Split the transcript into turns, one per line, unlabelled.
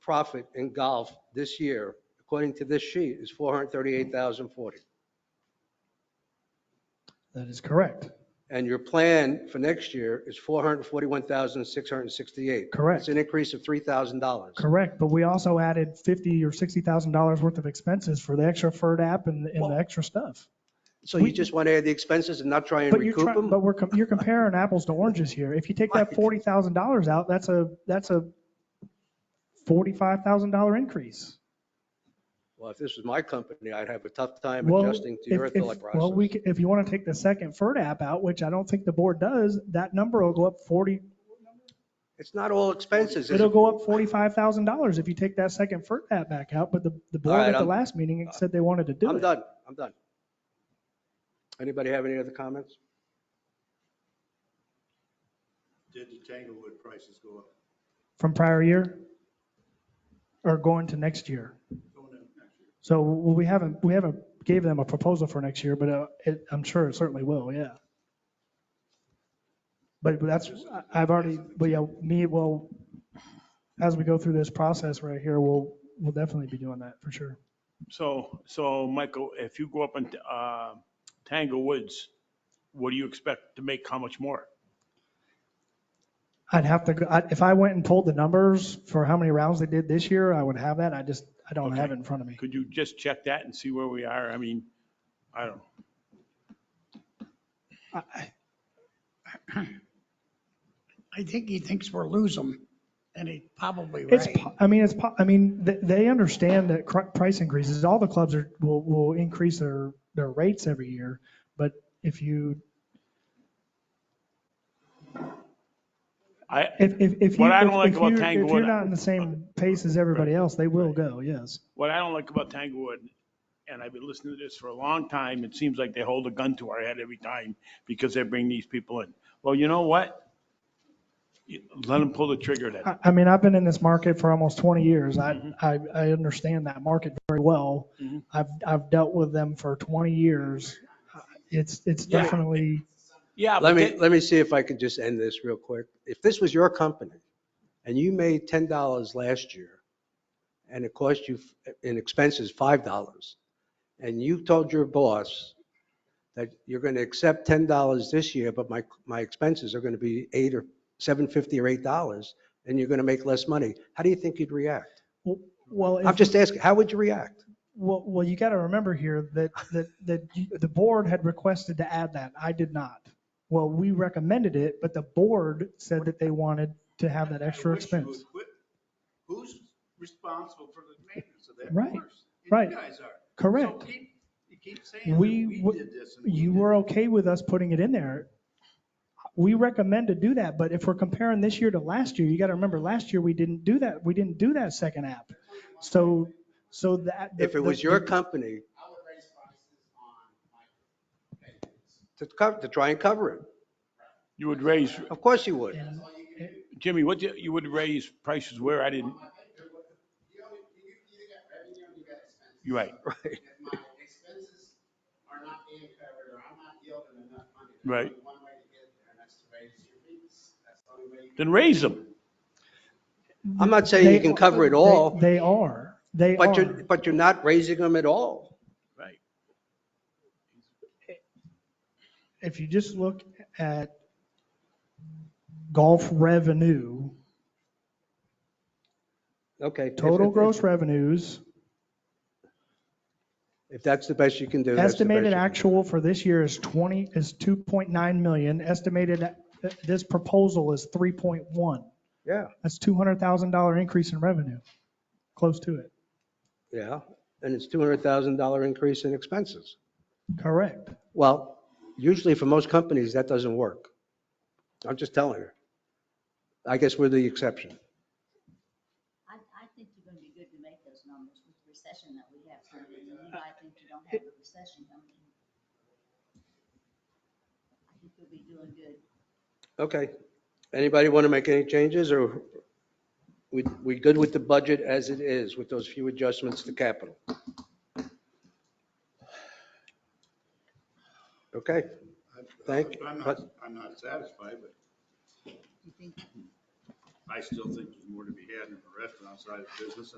profit in golf this year, according to this sheet, is 438,040.
That is correct.
And your plan for next year is 441,668.
Correct.
It's an increase of $3,000.
Correct. But we also added 50 or $60,000 worth of expenses for the extra FERD app and, and the extra stuff.
So you just want to add the expenses and not try and
But you're
recoup
trying,
them?
but we're, com- you're comparing apples to oranges here. If you take that
Right.
$40,000 out, that's a, that's a $45,000 increase.
Well, if this was my company, I'd have a tough time
Well,
adjusting to
if-
your
if-
thought
Well, we,
process.
c- if you want to take the second FERD app out, which I don't think the board does, that number will go up 40,
It's not all expenses. is
it'll
it?
go up $45,000 if you take that second FERD app back out. But the, the board
right,
at the
I'm-
last meeting said they wanted to do
I'm
it.
done. I'm done. Anybody have any other comments?
Did the Tanglewood prices go up?
From prior year or going to next year?
Going up next year.
So we haven't, we haven't gave them a proposal for next year, but uh, it- I'm sure it certainly will, yeah. But but that's, I- I've already, but yeah, me, well, as we go through this process right here, we'll, we'll definitely be doing that for sure.
So, so Michael, if you go up in uh, Tango Woods, what do you expect to make? How much more?
I'd have to, go- I- if I went and pulled the numbers for how many rounds they did this year, I would have that. I just, I don't have it in front of me.
Could you just check that and see where we are? I mean, I don't,
I think he thinks we'll lose them, and he's probably
It's,
right.
po- I mean, it's, po- I mean, th- they understand that cr- price increases, all the clubs are, will, will increase their, their rates every year. But if you,
I,
if, if, if you.
What I don't
if-
like
if
about
you're- If
Tanglewood- uh,
you're not in the same pace as everybody else, they will go, yes.
what I don't like about Tanglewood, and I've been listening to this for a long time, it seems like they hold a gun to our head every time because they bring these people in. Well, you know what? You- Let them pull the trigger then.
I, I mean, I've been in this market for almost 20 years.
Mm-hmm.
I, I, I understand that market very well.
Mhm.
I've, I've dealt with them for 20 years. Uh, It's, it's
Yeah.
definitely,
Yeah. but
Let me,
they-
let me see if I could just end this real quick. If this was your company and you made $10 last year and it cost you f- uh, in expenses $5, and you told your boss that you're going to accept $10 this year, but my, my expenses are going to be 8 or 7.50 or $8, and you're going to make less money, how do you think you'd react?
well. if-
I'm just asking, how would you react?
Well, well, you got to remember here that, that, that you- the board had requested to add that. I did not. Well, we recommended it, but the board said that they wanted to have that extra
I wish you would
expense.
quit. Who's responsible for the maintenance of that
Right,
course? You
right.
guys are.
Correct.
So keep, you keep saying that
We
we
w-
did this. and we
You
did
were
that.
okay with us putting it in there. We recommend to do that, but if we're comparing this year to last year, you got to remember, last year, we didn't do that. We didn't do that second app. So, so that.
If it was your company
I would raise prices on my papers.
to cover, to try and cover it,
You would raise,
of course you would.
And-
Jimmy, what, you you would raise prices where I didn't,
My paper, you know, you, you either got revenue or you got expenses.
you're right,
Right.
If my expenses are not being covered or I'm not yielding enough money. there's
Right.
only One way to get there and that's to raise your fees. That's the only way you
then raise them.
I'm not saying you
they-
can cover it
they-
all.
They are. They
But you're,
are.
but you're not raising them at all.
Right.
if you just look at golf revenue,
Okay. if-
total
if-
gross revenues,
If that's the best you can do. that's the best
estimated
you can do.
actual for this year is 20, is 2.9 million, estimated, uh, this proposal is 3.1.
Yeah,
That's $200,000 increase in revenue, close to it.
yeah. And it's $200,000 increase in expenses.
Correct.
Well, usually for most companies, that doesn't work. I'm just telling you. I guess we're the exception.
I, I think you're gonna be good to make those numbers with the recession that we have currently, and you might think you don't have a recession coming in. I think you'll be doing good.
Okay. Anybody want to make any changes or we, we good with the budget as it is with those few adjustments to capital? Okay. Thank-
I'm
but-
not, I'm not satisfied, but
You think,
I still think there's more to be had in the restaurant side of the business,